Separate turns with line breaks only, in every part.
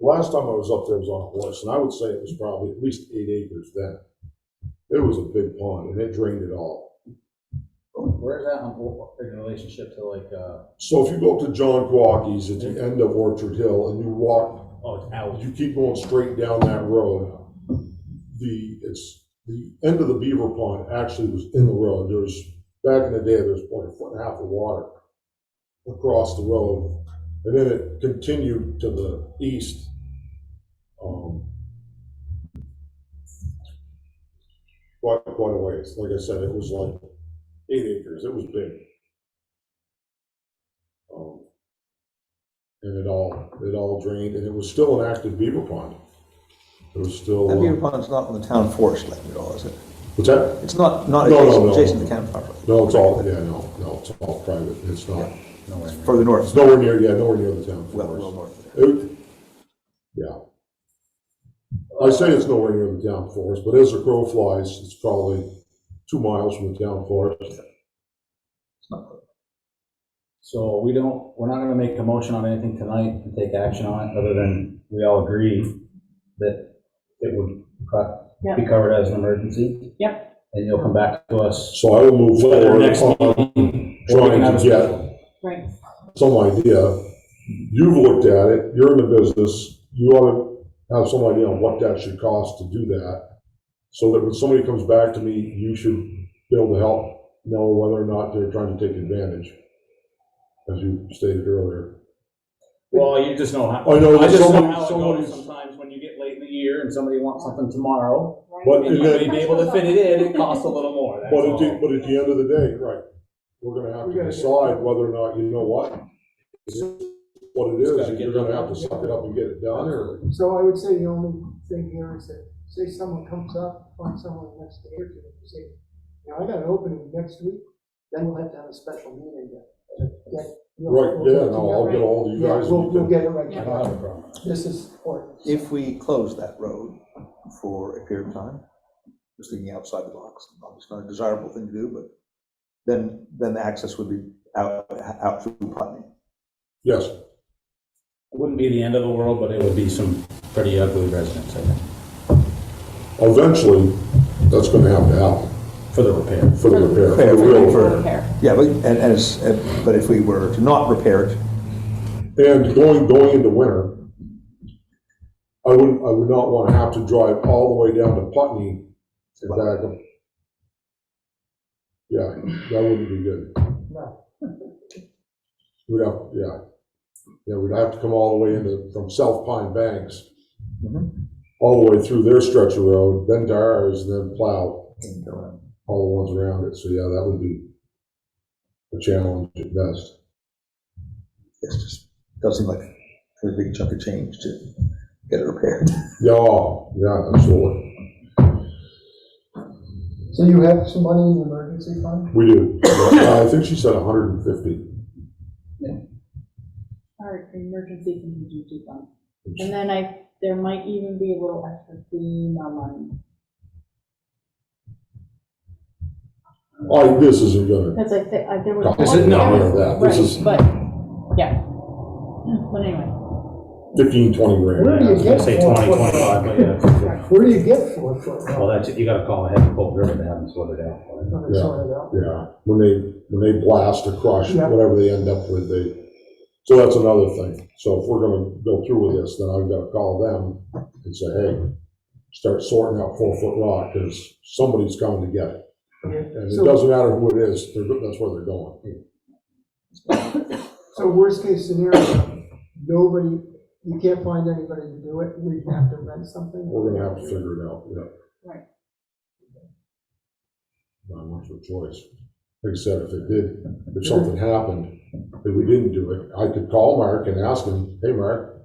last time I was up there was on a horse, and I would say it was probably at least eight acres then. It was a big pond, and it drained it all.
Where's that in- in relationship to like, uh,
So if you go up to John Quackey's at the end of Orchard Hill and you walk,
oh, it's out.
you keep going straight down that road, the, it's, the end of the beaver pond actually was in the road. There's, back in the day, there's like a foot and a half of water across the road. And then it continued to the east. um, Quite, quite a ways. Like I said, it was like eight acres. It was big. Um, And it all, it all drained and it was still an active beaver pond. It was still.
That
uh,
beaver pond's not on the town forest land at all, is it?
What's that?
It's not, not
No, no,
adjacent,
no.
adjacent to the campfire,
No, it's all, yeah, no, no, it's all private, it's not,
further
it's
north,
nowhere near, yeah, nowhere near the town.
well, well
forest.
north.
It- Yeah. I say it's nowhere near the town forest, but as the crow flies, it's probably two miles from the town forest.
It's not-
So we don't, we're not gonna make a motion on anything tonight and take action on it, other than we all agree that it would cut, be covered as an emergency? Yep. And you'll come back to us.
So I will move
Whether
forward
next
on
or we can
trying
have
to
a
get
special-
Right,
some idea. You've looked at it, you're in the business, you ought to have some idea on what that should cost to do that. So that when somebody comes back to me, you should be able to help know whether or not they're trying to take advantage, as you stated earlier.
Well, you just know how,
I know
I
that
just know
somebody,
how it goes
somebody's,
sometimes when you get late in the year and somebody wants something tomorrow,
right.
But
and you may be able to fit it in, it costs a little more, that's
but at the,
all.
but at the end of the day, right, we're gonna have to decide whether or not, you know what? is it What it
Just gotta
is,
get
you're gonna have to suck it up and get it done, or,
So I would say the only thing here is that, say someone comes up on someone next day or two, and say, now I got an opening next week, then we'll have to have a special meeting to, to get. you know,
right,
we'll
yeah,
get
no, I'll get
Right.
all of you
together.
guys. Uh-huh.
Yeah,
and
we'll,
you
we'll
can-
get it right.
I don't have a problem.
This is important.
If we close that road for a period of time, just thinking outside the box, obviously not a desirable thing to do, but then, then the access would be out, out through Putney.
Yes.
It Wouldn't be the end of the world, but it would be some pretty ugly residents, I think,
Eventually, that's gonna have to happen
for the repair.
for the repair, for
Fair,
the real
fair,
repair.
Repair.
Yeah, but, and, and, it's- and- but if we were to not repair it,
And going, going into winter, I wouldn't, I would not wanna have to drive all the way down to Putney and back up. Yeah, that wouldn't be good.
No.
We'd have, yeah, yeah, we'd have to come all the way into, from South Pine Banks,
Mhm.
all the way through their stretch of road, then to ours, then plow
and, uh,
all the ones around it, so yeah, that would be a challenge at best.
it's just, does seem like a big chunk of change to get it repaired.
Yeah, yeah, absolutely.
So you have some money in the emergency fund?
We do. Uh, I think she said hundred and fifty.
Our emergency contingency fund. And then I, there might even be a little extra FEMA money,
Oh, this isn't gonna.
because I think, I, there was.
This is- no,
one-
no, that- this
Right,
is-
But, yeah, but anyway,
Fifteen, twenty
Where
grand.
do you
I
get
Uh, say
four
20,
foot?
25, but yeah.
Where do you get four foot? rock?
Well, that's, it. you gotta call ahead and pull River to have them sort it out. for you.
Another sort of that.
Yeah, when they, when they blast or crush,
Yeah.
whatever they end up with, they, so that's another thing. So if we're gonna go through with this, then I've gotta call them and say, hey, start sorting out four foot rock, because somebody's coming to get it.
Okay.
And it
So-
doesn't matter who it is, they're, go- that's where they're going.
So worst case scenario, nobody, you can't find anybody to do it, we have to rent something?
We're gonna have to figure it out, yeah.
right.
not much of a choice. Like I said, if it did, if something happened, if we didn't do it, I could call Mark and ask him, hey, Mark,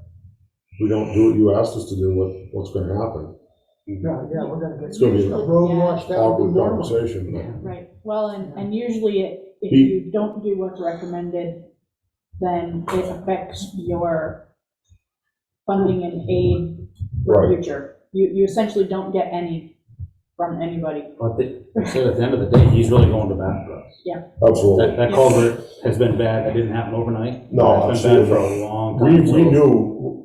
we don't do what you asked us to do, what, what's gonna happen?
Yeah, yeah, we're gonna get.
It's gonna be an
A road
Yeah.
wash, that would be
Awkward
normal.
conversation, but
Right, well, and, and usually it- if
He-
you don't do what's recommended, then it affects your funding and aid for the
Right.
future. You, you essentially don't get any from anybody.
But the- I said at the end of the day, he's really going to bat for us. That,
absolutely.
that culvert has been bad, that didn't happen overnight.
No,
That's been bad
absolutely.
for a long
We,
time.
we
so
knew,